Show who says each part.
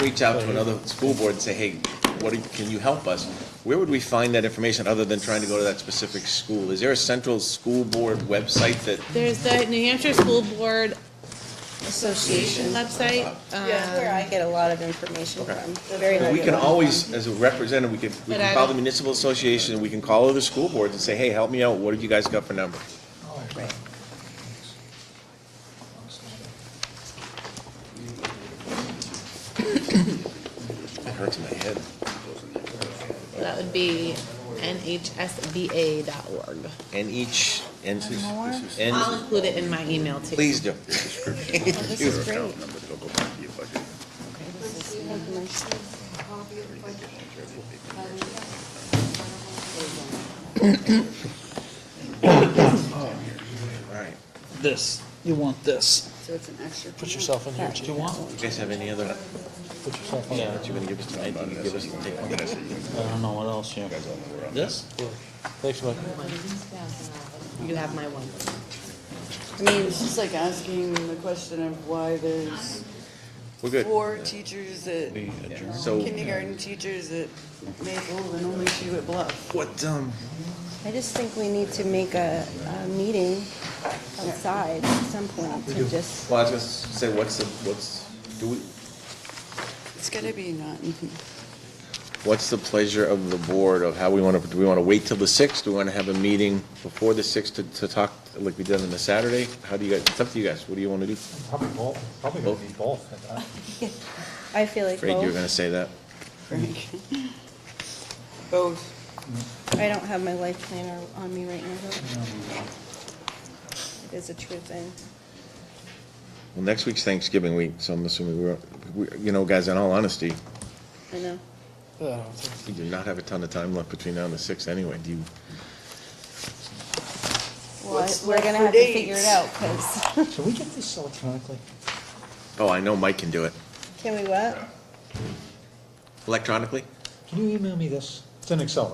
Speaker 1: reach out to another school board and say, hey, what, do- can you help us? Where would we find that information other than trying to go to that specific school? Is there a central school board website that,
Speaker 2: There's the New Hampshire School Board
Speaker 3: Association.
Speaker 2: website. Um,
Speaker 3: That's where I get a lot of information
Speaker 1: Okay.
Speaker 3: from, very
Speaker 1: we
Speaker 3: regularly.
Speaker 1: can always, as a representative, we can, we
Speaker 2: But
Speaker 1: can
Speaker 2: I
Speaker 1: call the
Speaker 2: don't-
Speaker 1: municipal association, we can call other school boards and say, hey, help me out, what have you guys got for number? It hurts my head.
Speaker 2: That would be nhsba.org.
Speaker 1: And each, and,
Speaker 2: I'll
Speaker 1: and,
Speaker 2: include it in my email too.
Speaker 1: please do.
Speaker 3: Oh, This is great.
Speaker 1: All right.
Speaker 4: This, you want this.
Speaker 3: So it's an extra.
Speaker 4: Put yourself in here. Do you want?
Speaker 1: You guys have any other,
Speaker 4: Put yourself in
Speaker 1: that you're gonna give us tonight? You can give us, take one.
Speaker 4: I don't know what else you. This? Thanks, Mike.
Speaker 2: You have my one.
Speaker 5: I mean, it's just like asking the question of why there's
Speaker 1: We're good.
Speaker 5: four teachers at,
Speaker 1: So,
Speaker 5: kindergarten teachers at Maple and only two at Bluff.
Speaker 1: what, um,
Speaker 3: I just think we need to make a, a meeting outside at some point to just,
Speaker 1: well, I was gonna say, what's the, what's, do we,
Speaker 5: It's gotta be not,
Speaker 1: what's the pleasure of the board of how we wanna, do we wanna wait till the sixth? Do we wanna have a meeting before the sixth to, to talk, like we did on the Saturday? How do you guys, it's up to you guys, what do you wanna do?
Speaker 6: Probably both, probably gonna be both. I-
Speaker 3: I feel like
Speaker 1: Afraid you were
Speaker 3: both.
Speaker 1: gonna say that.
Speaker 5: Frank. Both.
Speaker 3: I don't have my life planner on me right now. though. It is a true thing.
Speaker 1: Well, next week's Thanksgiving week, so I'm assuming we're, we, you know, guys, in all honesty,
Speaker 3: I know.
Speaker 1: we do not have a ton of time left between now and the sixth anyway. Do you,
Speaker 3: Well,
Speaker 5: What's
Speaker 3: we're
Speaker 5: left
Speaker 3: gonna
Speaker 5: for
Speaker 3: have to figure it
Speaker 5: dates?
Speaker 3: out, cause,
Speaker 6: I- Can we get this electronically?
Speaker 1: oh, I know Mike can do it.
Speaker 3: can we what?
Speaker 1: Electronically?
Speaker 6: Can you email me this? It's in Excel,